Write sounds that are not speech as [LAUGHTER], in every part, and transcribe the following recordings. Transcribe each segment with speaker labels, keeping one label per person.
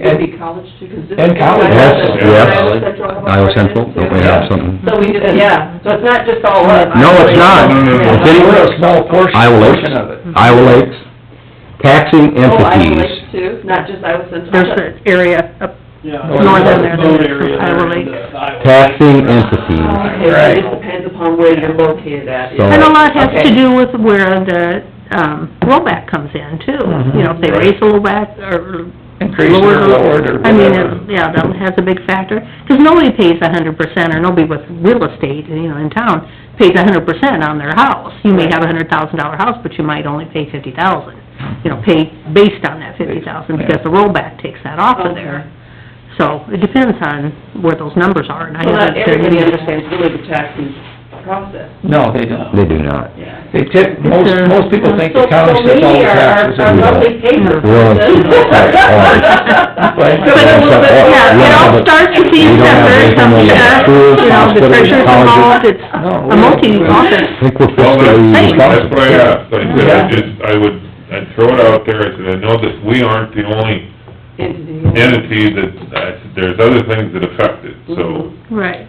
Speaker 1: could be college too, 'cause this.
Speaker 2: And college,
Speaker 3: yes, yes.
Speaker 1: Iowa Central. Ohio
Speaker 3: Iowa
Speaker 1: Market,
Speaker 3: Central, don't we
Speaker 1: yeah.
Speaker 3: have something?
Speaker 1: So we did, yeah, so it's not just all us.
Speaker 3: No, it's not.
Speaker 2: No, no, no.
Speaker 3: It's
Speaker 2: We're a
Speaker 3: anywhere.
Speaker 2: small portion,
Speaker 3: Iowa
Speaker 2: portion of it.
Speaker 3: Lakes, Iowa Lakes, taxing
Speaker 1: Oh, Iowa Lakes
Speaker 3: entities.
Speaker 1: too, not just Iowa Central.
Speaker 4: There's an area up,
Speaker 5: Yeah.
Speaker 2: Northern
Speaker 4: there,
Speaker 5: Boat
Speaker 4: there's
Speaker 5: area
Speaker 4: Iowa
Speaker 5: there,
Speaker 4: Lake.
Speaker 5: the Iowa Lake.
Speaker 3: Taxing
Speaker 1: Okay, so
Speaker 3: entities.
Speaker 1: it just depends upon where you're located at.
Speaker 3: So-
Speaker 4: and a lot has to
Speaker 1: Okay.
Speaker 4: do with where the, um, rollback comes in too. You know, if they raise the rollback or
Speaker 2: Increase or
Speaker 4: lower the-
Speaker 2: lowered or
Speaker 4: I mean, uh,
Speaker 2: whatever.
Speaker 4: it- yeah, that has a big factor, because nobody pays a hundred percent, or nobody with real estate, you know, in town, pays a hundred percent on their house. You may have a hundred thousand dollar house, but you might only pay fifty thousand, you know, pay based on that fifty thousand, because the rollback takes that off of there. So it depends on where those numbers are, and I
Speaker 1: Well, not
Speaker 4: haven't...
Speaker 1: everybody understands really the taxing process,
Speaker 2: No, they don't.
Speaker 3: They do not.
Speaker 1: yeah.
Speaker 2: They tip, most,
Speaker 4: It's, uh,
Speaker 2: most people think the county
Speaker 1: So- so
Speaker 2: sets all the
Speaker 1: maybe our-
Speaker 2: taxes.
Speaker 1: Our, our
Speaker 2: and-
Speaker 1: monthly papers. [LAUGHS]
Speaker 3: Well,
Speaker 4: Yeah, it all starts with these
Speaker 3: We don't have
Speaker 4: numbers,
Speaker 3: anything on the schools,
Speaker 4: you know, the
Speaker 3: hospitals,
Speaker 4: treasurer's
Speaker 3: colleges.
Speaker 4: involved, it's
Speaker 2: No,
Speaker 4: a
Speaker 2: we-
Speaker 4: multi-office
Speaker 3: I think we're
Speaker 6: Well,
Speaker 3: fiscally
Speaker 4: Hey.
Speaker 6: that's, that's
Speaker 3: responsible.
Speaker 6: what I asked, I said, I
Speaker 2: Yeah.
Speaker 6: just, I would, I'd throw it out there, I said, I know that we aren't the only entity that, I said, there's other things that affect it, so.
Speaker 4: Right,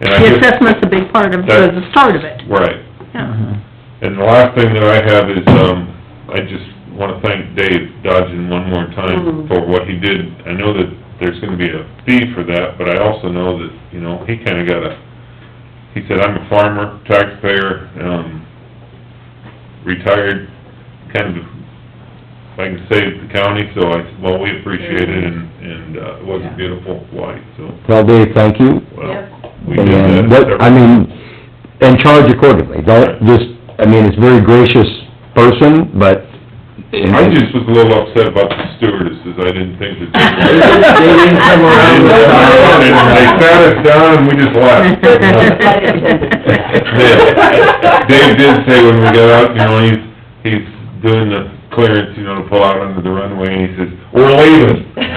Speaker 6: and I
Speaker 4: the
Speaker 6: just-
Speaker 4: assessment's a big part of, the the start of it,
Speaker 6: Right, Mm-hmm.
Speaker 4: yeah.
Speaker 6: and the last thing that I have is, um, I just wanna thank Dave Dodgen one more time
Speaker 1: Mhm.
Speaker 6: for what he did. I know that there's gonna be a fee for that, but I also know that, you know, he kinda got a, he said, I'm a farmer, taxpayer, um, retired, kind of, if I can save the county, so I, well, we appreciate it, and, and, uh, it was a beautiful flight, so,
Speaker 3: Well, Dave, thank you.
Speaker 6: well,
Speaker 1: Yep.
Speaker 6: we did that.
Speaker 3: And what, I mean, and charge accordingly. Don't just, I mean, it's a very gracious person, but...
Speaker 6: I just was a little upset about the stewardesses, I didn't think
Speaker 2: [LAUGHS]
Speaker 6: that.
Speaker 2: They didn't
Speaker 6: [LAUGHS]
Speaker 2: come around with
Speaker 6: They they sat us down and we just
Speaker 2: [LAUGHS]
Speaker 6: left. Dave did say when we got out, you know, he's, he's doing the clearance, you know, to pull out onto the runway, and he says, "We're leaving."
Speaker 2: [LAUGHS]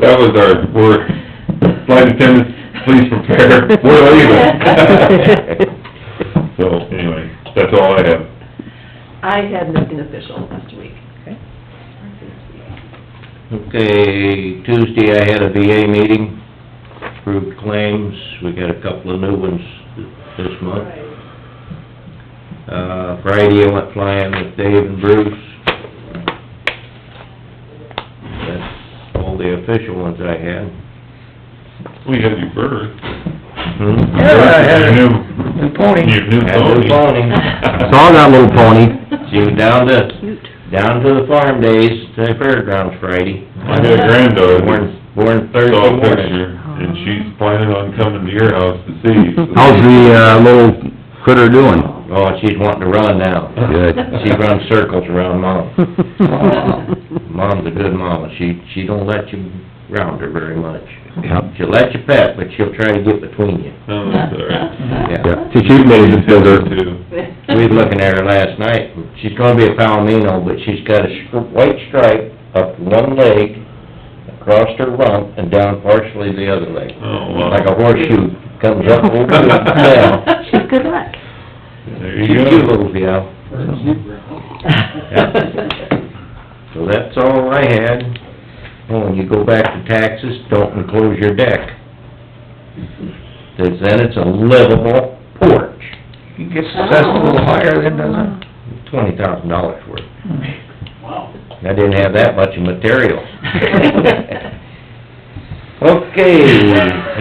Speaker 6: That was our, we're, flight attendants, please prepare, we're
Speaker 2: [LAUGHS]
Speaker 6: leaving. [LAUGHS] So, anyway, that's all I have.
Speaker 1: I had nothing official last week.
Speaker 7: Okay, Tuesday I had a VA meeting, approved claims, we got a couple of new ones this month. Uh, Friday I went flying with Dave and Bruce. That's all the official ones I had.
Speaker 6: We had your birth.
Speaker 7: Hmm?
Speaker 2: Yeah, I had a
Speaker 6: Your new-
Speaker 2: new pony.
Speaker 6: Your new
Speaker 7: Had a
Speaker 6: pony.
Speaker 7: new pony.
Speaker 6: [LAUGHS]
Speaker 3: Saw that little pony.
Speaker 7: She was down to, down to the farm days, to the fairgrounds Friday.
Speaker 6: I got a granddaughter.
Speaker 7: Born, born Thursday
Speaker 6: saw a
Speaker 7: morning.
Speaker 6: picture, and she's planning on coming to your house to see. so- [LAUGHS]
Speaker 3: How's the, uh, little critter doing?
Speaker 7: Oh, she's wanting to run now.
Speaker 3: Good.
Speaker 7: [LAUGHS] She runs circles around mom.
Speaker 4: Well,
Speaker 7: Mom's a good mama, she, she don't let you round her very much.
Speaker 3: Yep.
Speaker 7: She'll let you pet, but she'll try to get between you.
Speaker 6: No, that's all right.
Speaker 3: Yeah, she she made it to her.
Speaker 6: Too.
Speaker 7: We was looking at her last night, and she's gonna be a palomino, but she's got a stri- white stripe up one leg, across her rump, and down partially the other leg.
Speaker 6: Oh,
Speaker 7: Like a
Speaker 6: wow.
Speaker 7: horseshoe, comes up over the tail.
Speaker 4: She's good luck.
Speaker 6: There
Speaker 7: She's
Speaker 6: you
Speaker 7: a cute
Speaker 6: go.
Speaker 7: little gal,
Speaker 1: [LAUGHS] Oh.
Speaker 7: so that's all I had. Oh, when you go back to taxes, don't enclose your deck. 'Cause then it's a livable porch.
Speaker 2: He gets assessed a
Speaker 1: Oh.
Speaker 2: little higher than, doesn't
Speaker 7: twenty thousand dollars worth.
Speaker 5: Wow.
Speaker 7: I didn't have that much of material. Okay,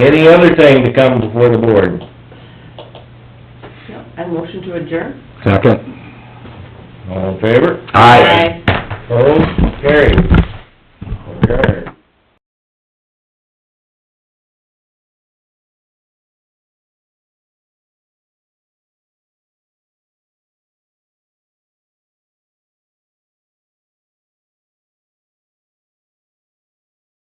Speaker 7: any other thing to come before the board?
Speaker 1: [LAUGHS] I motion to adjourn.
Speaker 3: Second.
Speaker 7: All in favor?
Speaker 3: Aye.
Speaker 7: Opposed? Carried. Adjourned.